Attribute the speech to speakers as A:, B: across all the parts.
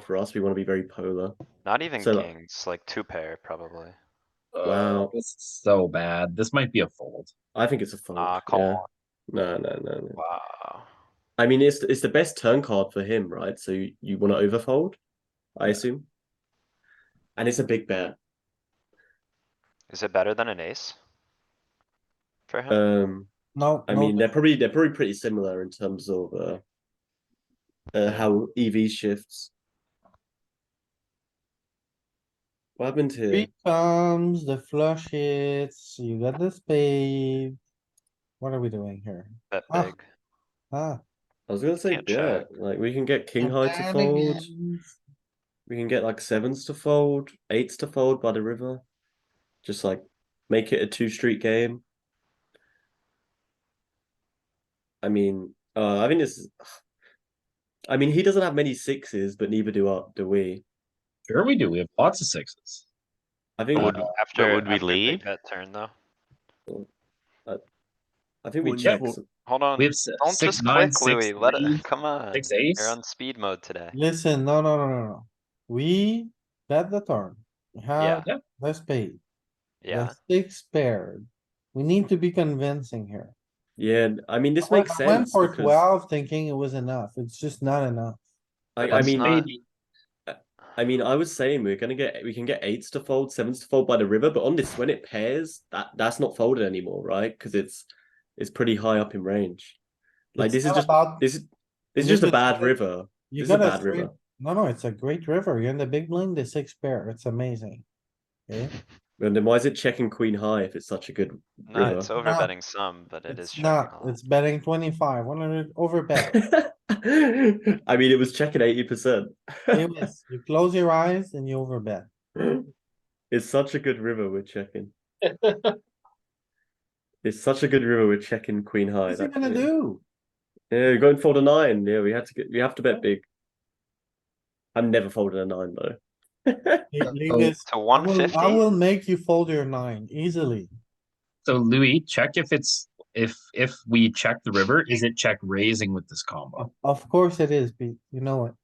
A: for us. We want to be very polar.
B: Not even
A: So, like-
B: kings, like two pair probably.
A: Wow.
C: Uh, this is so bad. This might be a fold.
A: I think it's a fold.
B: Ah, come
A: Oh, yeah.
B: on.
A: No, no, no, no.
B: Wow.
A: I mean, it's it's the best turn card for him, right? So you, you want to overfold, I assume. And it's a big bet.
B: Is it better than an ace? For him?
A: Um,
D: No,
A: I
D: no,
A: mean, they're probably they're probably pretty similar in terms of uh, uh how EV shifts. What happened here?
D: three comes, the flush hits, you got the spade. What are we doing here?
B: Bet
D: ah,
B: big.
D: Ah.
A: I was gonna say,
B: Can't
A: yeah,
B: check.
A: like we can get king
D: I'm
A: high to
D: bad
A: fold.
D: again.
A: We can get like sevens to fold, eights to fold by the river. Just like make it a two street game. I mean, uh, I think this. is- I mean, he doesn't have many sixes, but neither do our, do we.
C: Sure, we do. We have lots of sixes.
A: I think
B: Would- After,
E: would we
B: after big
E: lead?
B: bet turn though.
A: I think we
E: Well, yeah,
A: check.
E: well-
A: some-
B: Hold on,
C: We have si-
B: don't
C: six,
B: just click
C: nine, six,
B: Louis, let
C: three,
B: it, come on.
C: six, ace.
B: You're on speed mode today.
D: Listen, no, no, no, no, no. We got the turn. We have
C: Yeah.
D: the spade,
B: Yeah,
D: the six paired. We need to be convincing here.
A: Yeah, I mean, this
D: I went-
A: makes
D: I Went
A: sense.
D: for
A: because
D: twelve thinking it was enough. It's just not enough.
A: I, I
B: Let's
A: mean,
B: not-
A: I mean, I was saying we're gonna get we can get eights to fold, sevens to fold by the river, but on this when it pairs, that that's not folded anymore, right? Because it's it's pretty high up in range. Like
D: It's
A: this is
D: not
A: just
D: about-
A: this is this is
D: you
A: just a
D: just
A: bad
D: gotta-
A: river.
D: You
A: this is a
D: got
A: bad
D: straight-
A: river.
D: No, no, it's a great river. You're in the big blind, the six pair. It's amazing. Okay?
A: And then why is it checking queen high if it's such a good?
B: no, it's over
D: Not-
B: betting some, but it is
D: It's
B: checking
D: not,
B: a lot.
D: it's betting twenty-five, one hundred over bet.
A: I mean, it was checking eighty percent.
D: You miss. You close your eyes and you over bet.
B: Oh,
A: It's such a good river we're checking. It's such a good river we're checking queen high.
D: What's he
A: that
D: gonna
A: clear.
D: do?
A: Yeah, going fold a nine. Yeah, we had to get. We have to bet big. I'm never folding a nine though.
D: You- you
C: Oh,
D: miss.
B: To
D: I
B: one
D: will- I will
B: fifty,
D: make you fold your nine easily.
C: So Louis, check if it's if if we check the river, is it check raising with this combo?
D: Of course it is, Pete. You know it.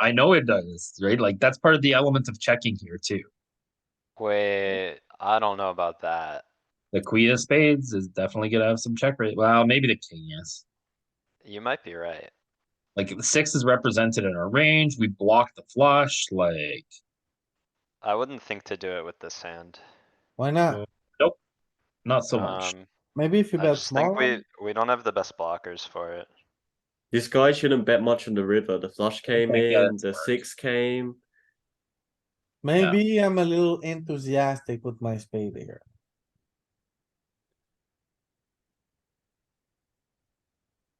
C: I know it does, right? Like that's part of the element of checking here too.
B: wait, I don't know about that.
C: The queen of spades is definitely gonna have some check rate. Well, maybe the king is.
B: You might be right.
C: Like if the six is represented in our range. We block the flush. Like
B: I wouldn't think to do it with this hand.
D: Why not?
C: Yeah. not so much.
B: Um,
D: Maybe if you
B: I
D: bet
B: just think
D: small,
B: we, we don't have the best blockers for it.
A: This guy shouldn't bet much on the river. The flush came
C: think, yeah,
A: in.
C: that's
A: The
C: smart.
A: six came.
D: maybe I'm a little enthusiastic with my spade here.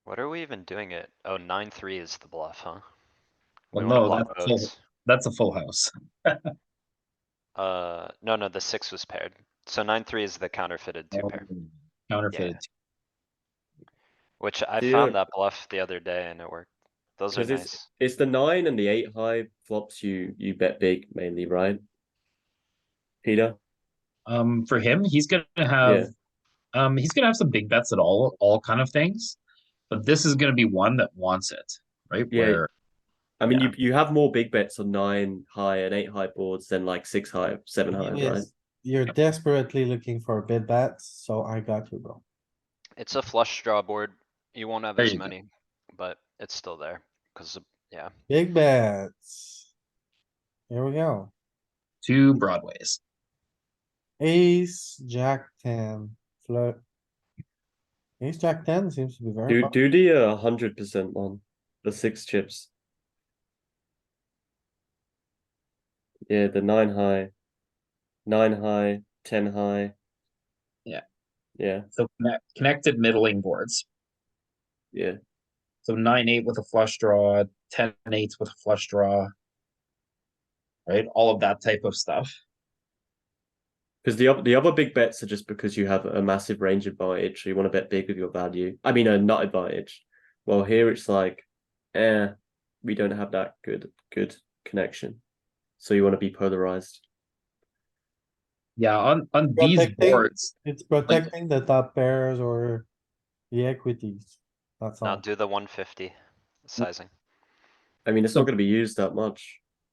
B: What are we even doing it? Oh, nine, three is the bluff, huh? We
C: Well,
B: wanna
C: no,
B: block
C: that's a full,
B: votes.
C: that's a full house.
B: Uh, no, no, the six was paired. So nine, three is the counterfeited
C: Oh,
B: two pair,
C: Counterfeited.
B: which I found
A: Dude.
B: that bluff the other day and it worked. Those are
A: Because it's-
B: nice.
A: It's the nine and the eight high flops. You you bet big mainly, right? Peter.
C: Um, for him, he's gonna have, um, he's gonna have some big bets at all, all kind of things. But this is gonna be one that wants it, right?
A: Yeah.
C: Where
A: I mean,
C: Yeah.
A: you you have more big bets on nine high and eight high boards than like six high, seven high, right?
D: Yes, You're desperately looking for a bid bet, so I got you, bro.
B: It's a flush draw board. You won't have
C: There
B: as
C: you go. Oh.
B: many, but it's still there, cause the- yeah,
D: Big bets. Here we go.
C: two broadways.
D: Ace, jack ten, flush. Ace, jack ten seems to be very.
A: Do
D: pop-
A: do the uh, hundred percent one, the six chips. Yeah, the nine high, nine high, ten high.
C: Yeah.
A: Yeah,
C: So connect, connected middling boards.
A: yeah.
C: So nine eight with a flush draw, ten eight with a flush draw. Right, all of that type of stuff.
A: Because the oth- the other big bets are just because you have a massive range advantage, so you want to bet big with your value. I mean, a nut advantage. Well, here it's like, eh, we don't have that good good connection, so you want to be polarized.
C: Yeah, on on
D: Well,
C: these
D: like they-
C: boards,
D: It's protecting the top pairs or the equities. That's
B: now
D: all.
B: do the one fifty sizing.
A: I mean, it's
C: So-
A: not going to be used that much.